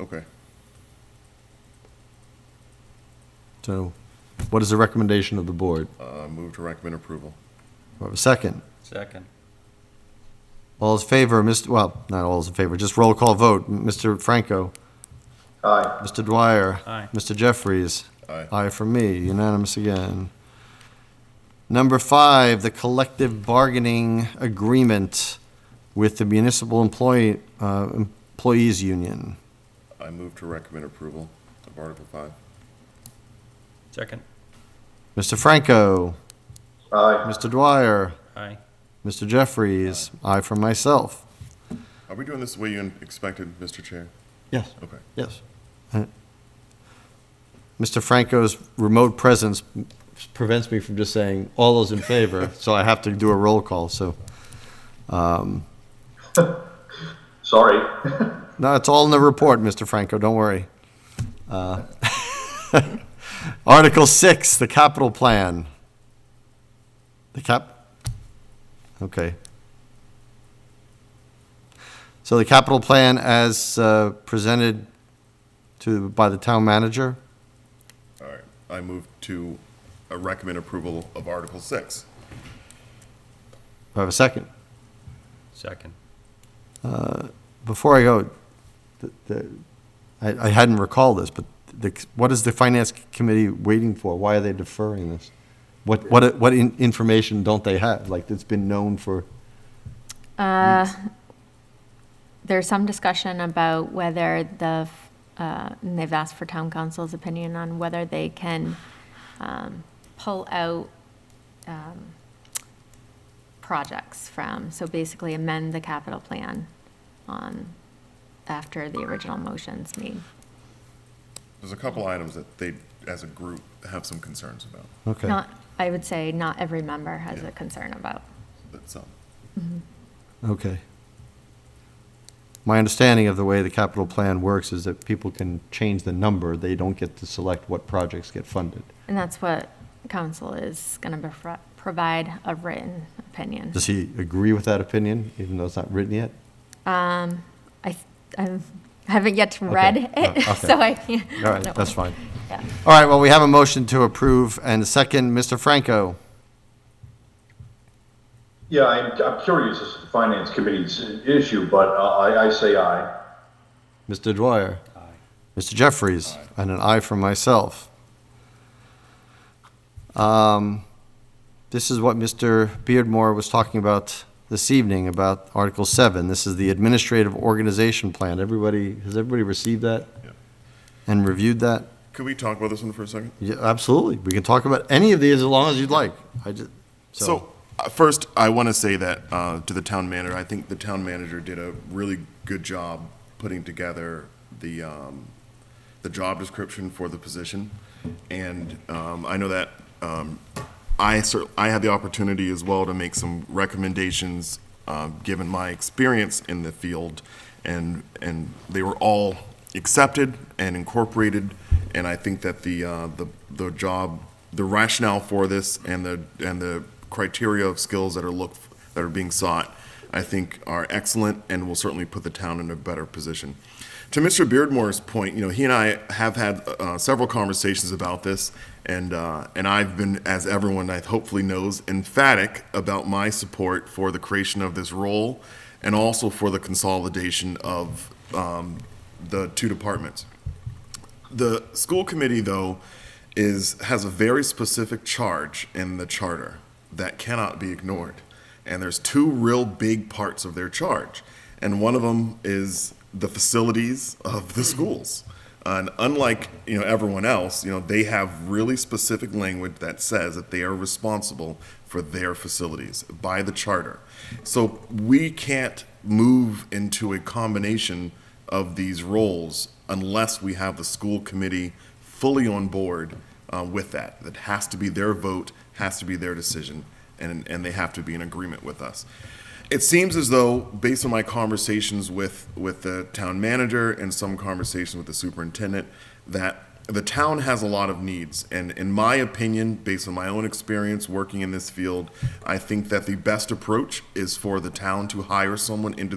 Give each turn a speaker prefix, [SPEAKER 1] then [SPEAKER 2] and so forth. [SPEAKER 1] Okay.
[SPEAKER 2] So what is the recommendation of the board?
[SPEAKER 1] Uh, move to recommend approval.
[SPEAKER 2] Do I have a second?
[SPEAKER 3] Second.
[SPEAKER 2] All is in favor, Mr., well, not all is in favor, just roll call vote. Mr. Franco? Aye. Mr. Dwyer?
[SPEAKER 3] Aye.
[SPEAKER 2] Mr. Jeffries?
[SPEAKER 1] Aye.
[SPEAKER 2] Aye for me, unanimous again. Number five, the collective bargaining agreement with the Municipal Employee, uh, Employees Union.
[SPEAKER 1] I move to recommend approval of Article Five.
[SPEAKER 3] Second.
[SPEAKER 2] Mr. Franco? Aye. Mr. Dwyer?
[SPEAKER 3] Aye.
[SPEAKER 2] Mr. Jeffries? Aye for myself.
[SPEAKER 1] Are we doing this the way you expected, Mr. Chair?
[SPEAKER 2] Yes.
[SPEAKER 1] Okay.
[SPEAKER 2] Yes. Mr. Franco's remote presence prevents me from just saying, all those in favor, so I have to do a roll call, so. um.
[SPEAKER 4] Sorry.
[SPEAKER 2] No, it's all in the report, Mr. Franco, don't worry. Uh, Article 6, the capital plan. The cap, okay. So the capital plan as uh, presented to, by the town manager?
[SPEAKER 1] All right. I move to uh, recommend approval of Article Six.
[SPEAKER 2] Do I have a second?
[SPEAKER 3] Second.
[SPEAKER 2] Before I go, the- the- I I hadn't recalled this, but the- what is the Finance Committee waiting for? Why are they deferring this? What what what in- information don't they have? Like, it's been known for,
[SPEAKER 5] There's some discussion about whether the, uh, and they've asked for town council's opinion on whether they can um, pull out um, projects from, so basically amend the capital plan on, after the original motion's made.
[SPEAKER 1] There's a couple items that they, as a group, have some concerns about.
[SPEAKER 2] okay.
[SPEAKER 5] Not, I would say not every member has a concern about.
[SPEAKER 1] That's um,
[SPEAKER 2] Okay. My understanding of the way the capital plan works is that people can change the number, they don't get to select what projects get funded.
[SPEAKER 5] And that's what council is going to provide a written opinion.
[SPEAKER 2] Does he agree with that opinion, even though it's not written yet?
[SPEAKER 5] I, I haven't yet read it,
[SPEAKER 2] Uh, okay.
[SPEAKER 5] so I can't.
[SPEAKER 2] All right, that's fine.
[SPEAKER 5] Yeah.
[SPEAKER 2] All right, well, we have a motion to approve, and second, Mr. Franco.
[SPEAKER 4] Yeah, I'm, I'm curious, this is the finance committee's issue, but uh, I, I say aye.
[SPEAKER 2] Mr. Dwyer? Aye. Mr. Jeffries? And an aye for myself. Um, This is what Mr. Beardmore was talking about this evening, about Article 7. This is the Administrative Organization Plan. Everybody, has everybody received that?
[SPEAKER 1] Yeah.
[SPEAKER 2] And reviewed that?
[SPEAKER 1] Could we talk about this one for a second?
[SPEAKER 2] Yeah, absolutely. We can talk about any of these as long as you'd like. I just, so,
[SPEAKER 1] So, uh, first, I want to say that uh, to the town manager, I think the town manager did a really good job putting together the, um, the job description for the position. And um, I know that um, I cer I had the opportunity as well to make some recommendations, um, given my experience in the field. And, and they were all accepted and incorporated. And I think that the, uh, the, the job, the rationale for this and the, and the criteria of skills that are looked, that are being sought, I think are excellent and will certainly put the town in a better position. To Mr. Beardmore's point, you know, he and I have had uh, several conversations about this, and uh, and I've been, as everyone I hopefully knows, emphatic about my support for the creation of this role, and also for the consolidation of um, the two departments. The school committee, though, is, has a very specific charge in the charter that cannot be ignored. And there's two real big parts of their charge. And one of them is the facilities of the schools. And unlike, you know, everyone else, you know, they have really specific language that says that they are responsible for their facilities by the charter. So we can't move into a combination of these roles unless we have the school committee fully on board uh, with that. That has to be their vote, has to be their decision, and, and they have to be in agreement with us. It seems as though, based on my conversations with, with the town manager and some conversations with the superintendent, that the town has a lot of needs. And in my opinion, based on my own experience working in this field, I think that the best approach is for the town to hire someone into the